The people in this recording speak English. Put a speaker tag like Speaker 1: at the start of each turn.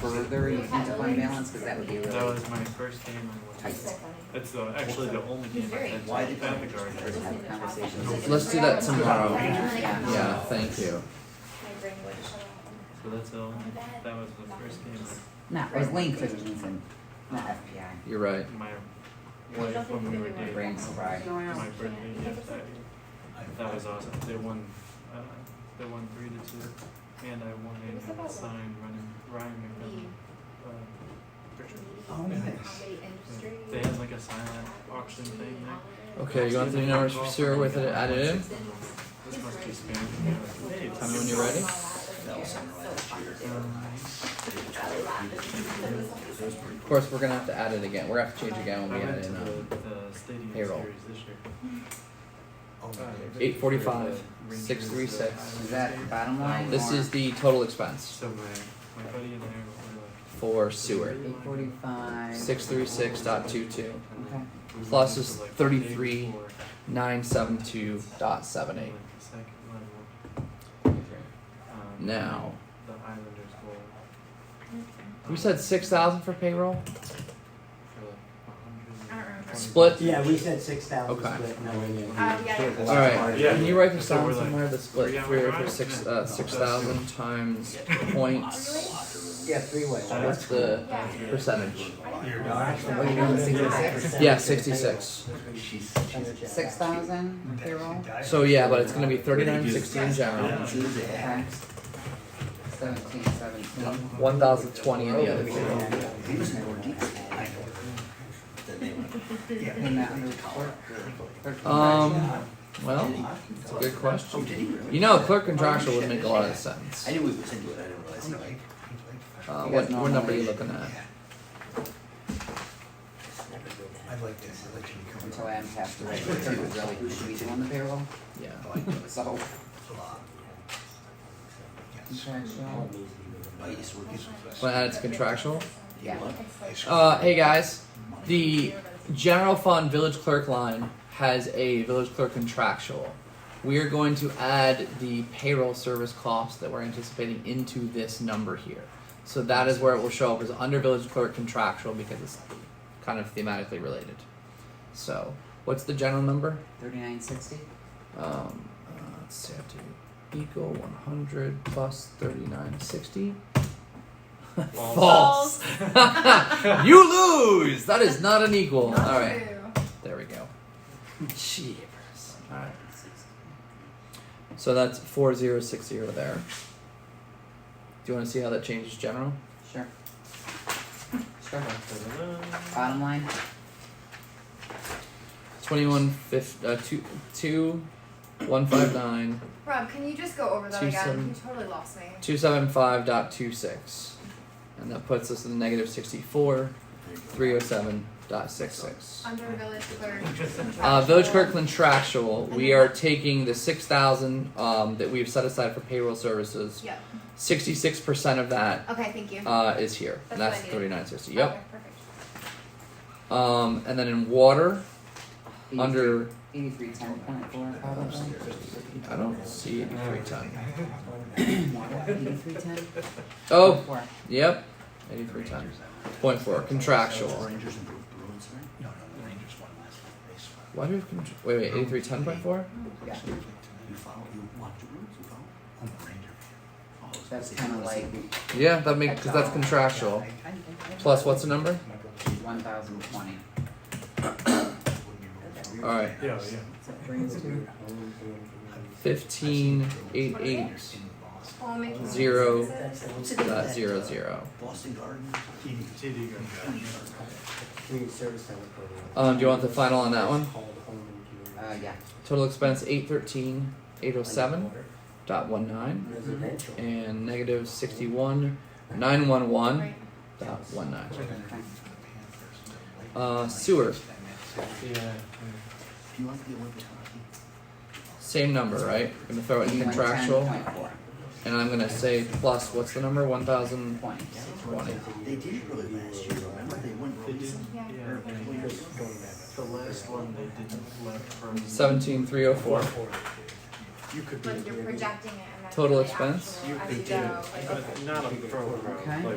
Speaker 1: further you can define balance, because that would be
Speaker 2: That
Speaker 1: really
Speaker 2: was my first game I went.
Speaker 1: tight.
Speaker 2: That's the, actually the only game I had
Speaker 1: Why did
Speaker 2: at the garden.
Speaker 1: you have conversations?
Speaker 3: Let's do that tomorrow.
Speaker 1: Yeah.
Speaker 3: Yeah, thank you.
Speaker 2: So that's the only, that was the first game
Speaker 1: Not, it was lane fifteens and not FPI.
Speaker 3: You're right.
Speaker 2: I- my wife when we were dating.
Speaker 1: Brain fried.
Speaker 2: My birthday gift that year. That was awesome. They won. Uh, they won three to two, and I won a sign running Ryan McMillan. Uh, picture.
Speaker 4: uh,
Speaker 1: Oh, nice.
Speaker 2: they had like a silent auction thing. There.
Speaker 3: Okay, you want the numbers for sewer with it added in?
Speaker 2: This must be spam. Hey,
Speaker 3: Tell me when you're ready.
Speaker 2: Um,
Speaker 3: Of course, we're gonna have to add it again. We're gonna have to change again
Speaker 2: I
Speaker 3: when we
Speaker 2: went
Speaker 3: add
Speaker 2: to
Speaker 3: in. Um,
Speaker 2: the, the stadium
Speaker 3: payroll.
Speaker 2: series this year. Uh,
Speaker 5: Eight.
Speaker 3: Eight forty-five,
Speaker 2: Rangers,
Speaker 3: six three
Speaker 2: uh,
Speaker 3: six.
Speaker 1: Is that bottom line?
Speaker 3: This is the total expense
Speaker 2: So my, my buddy and I were like,
Speaker 3: for sewer.
Speaker 1: Eight forty-five.
Speaker 3: Six three six dot two two
Speaker 1: Okay.
Speaker 2: we went
Speaker 3: Plus
Speaker 2: into,
Speaker 3: is
Speaker 2: like, the day
Speaker 3: 33.
Speaker 2: before,
Speaker 3: nine seven two dot seven
Speaker 2: like,
Speaker 3: eight.
Speaker 2: the second level, um,
Speaker 3: Now,
Speaker 2: The Islanders goal. Um,
Speaker 3: we said six thousand for payroll. Split?
Speaker 2: Split.
Speaker 5: Yeah, we said six thousand
Speaker 3: Okay.
Speaker 5: split, no, we didn't.
Speaker 4: Uh, yeah.
Speaker 3: All right.
Speaker 2: Yeah.
Speaker 3: Can you write this
Speaker 2: So
Speaker 3: down
Speaker 2: we're like-
Speaker 3: somewhere? The
Speaker 2: Yeah,
Speaker 3: split
Speaker 2: we're
Speaker 3: for for
Speaker 2: right.
Speaker 3: six
Speaker 2: Yeah.
Speaker 3: uh, six thousand times points.
Speaker 5: Yeah, three way.
Speaker 2: Sorry.
Speaker 3: What's the percentage?
Speaker 5: No, actually, we
Speaker 1: Yeah.
Speaker 5: didn't do that
Speaker 1: Sixty-six.
Speaker 5: percentage.
Speaker 3: Yeah, sixty-six.
Speaker 6: She's,
Speaker 5: Percentage.
Speaker 1: Six thousand payroll?
Speaker 3: So yeah, but it's gonna be thirty-nine sixty in general,
Speaker 2: Yeah.
Speaker 1: Okay. Seventeen, seventeen.
Speaker 3: one thousand twenty in the other. two.
Speaker 5: Yeah.
Speaker 6: he was more deep I know. Than they were.
Speaker 1: In that under clerk, clerk.
Speaker 3: Um, well,
Speaker 6: It's
Speaker 3: a good question.
Speaker 6: Oh, did he really?
Speaker 3: you know, clerk contractual would make a lot of sense.
Speaker 6: I knew we was into it, I didn't realize. it.
Speaker 3: Uh, what, what number are you looking at?
Speaker 7: I'd like to let you come
Speaker 1: Until Adam passed away, the clerk was really, should we do on the payroll?
Speaker 3: Yeah.
Speaker 1: So,
Speaker 7: Yes.
Speaker 1: contractual.
Speaker 6: Oh, yes, we're getting-
Speaker 3: Want to add it to contractual?
Speaker 1: Yeah.
Speaker 3: Uh, hey guys, the general fund village clerk line has a village clerk contractual. We are going to add the payroll service costs that we're anticipating into this number here. So that is where it will show up as under village clerk contractual because it's kind of thematically related. So, what's the general number?
Speaker 1: Thirty-nine sixty?
Speaker 3: Um, uh, let's see, I have to equal 100 plus 3960. False. you lose. That is not an equal. All right, there we go. Jeepers. All right. So that's 4060 there. Do you want to see how that changes general?
Speaker 1: Sure. Sure. Bottom line,
Speaker 3: 21 fif- uh, 2 two one five nine
Speaker 4: Rob, can you just go over that
Speaker 3: Two
Speaker 4: again?
Speaker 3: seven-
Speaker 4: You totally lost me.
Speaker 3: 275.26. And that puts us in negative 64, 307.66.
Speaker 4: Under village clerk.
Speaker 3: Uh, Village
Speaker 4: contractual.
Speaker 3: clerk contractual, we are taking the 6,000 um, that we've set aside for payroll services.
Speaker 4: Yep.
Speaker 3: 66% of that
Speaker 4: Okay, thank you.
Speaker 3: uh, is here. and
Speaker 4: That's
Speaker 3: that's
Speaker 4: what I needed.
Speaker 3: 3960. Yep.
Speaker 4: Okay, perfect.
Speaker 3: Um, and then in water,
Speaker 1: eighty-three,
Speaker 3: under.
Speaker 1: eighty-three, ten point four, probably.
Speaker 3: I don't see it. Three ton.
Speaker 1: Eighty-three, ten?
Speaker 3: Oh,
Speaker 1: Four.
Speaker 3: yep. 83 ton. Point four, contractual.
Speaker 6: Rangers and Bru- Bruins, right?
Speaker 7: No, no, the Rangers won last night. They swept.
Speaker 3: Why do we have contra- Wait, wait, 83 ton point four?
Speaker 1: Yeah.
Speaker 6: You follow, you watch the Bruins, you follow?
Speaker 7: I'm a Ranger.
Speaker 6: Oh, it's-
Speaker 1: That's kinda like
Speaker 3: Yeah, that makes because that's contractual. Plus, what's the number?
Speaker 7: My brother's
Speaker 1: one thousand twenty.
Speaker 7: one year
Speaker 3: All right,
Speaker 2: Yeah, yeah.
Speaker 3: fifteen eight eight
Speaker 7: old in Boston.
Speaker 4: Well, make you-
Speaker 3: Zero.
Speaker 6: What's it
Speaker 3: dot
Speaker 6: that,
Speaker 3: zero
Speaker 6: uh,
Speaker 3: zero.
Speaker 6: Boston Garden.
Speaker 2: TD gun.
Speaker 5: Community service center.
Speaker 3: Um, do you want the final on that one?
Speaker 5: Called home and community.
Speaker 1: Uh, yeah.
Speaker 3: Total expense eight thirteen eight oh seven dot one nine
Speaker 5: Residential.
Speaker 3: and negative sixty one nine one one
Speaker 4: Right.
Speaker 3: dot one nine.
Speaker 7: Panthers.
Speaker 3: Uh, sewer,
Speaker 2: Yeah.
Speaker 6: Do you want the Olympic hockey?
Speaker 3: same number, right? I'm gonna throw it in contractual, and I'm gonna say plus what's the number? One thousand
Speaker 1: Points.
Speaker 3: twenty.
Speaker 6: They did really last year, remember? They won
Speaker 2: They
Speaker 6: really
Speaker 2: did.
Speaker 6: some.
Speaker 4: Yeah.
Speaker 2: Yeah.
Speaker 4: Yeah.
Speaker 2: The last one they didn't left from.
Speaker 3: Seventeen three oh four.
Speaker 5: You could be.
Speaker 4: Like you're projecting it and that's
Speaker 3: Total
Speaker 4: the
Speaker 3: expense?
Speaker 4: actual
Speaker 6: You-
Speaker 4: as
Speaker 6: they
Speaker 4: you
Speaker 6: did.
Speaker 4: go, like-
Speaker 2: But not a pro, pro.
Speaker 1: Okay.
Speaker 2: Like,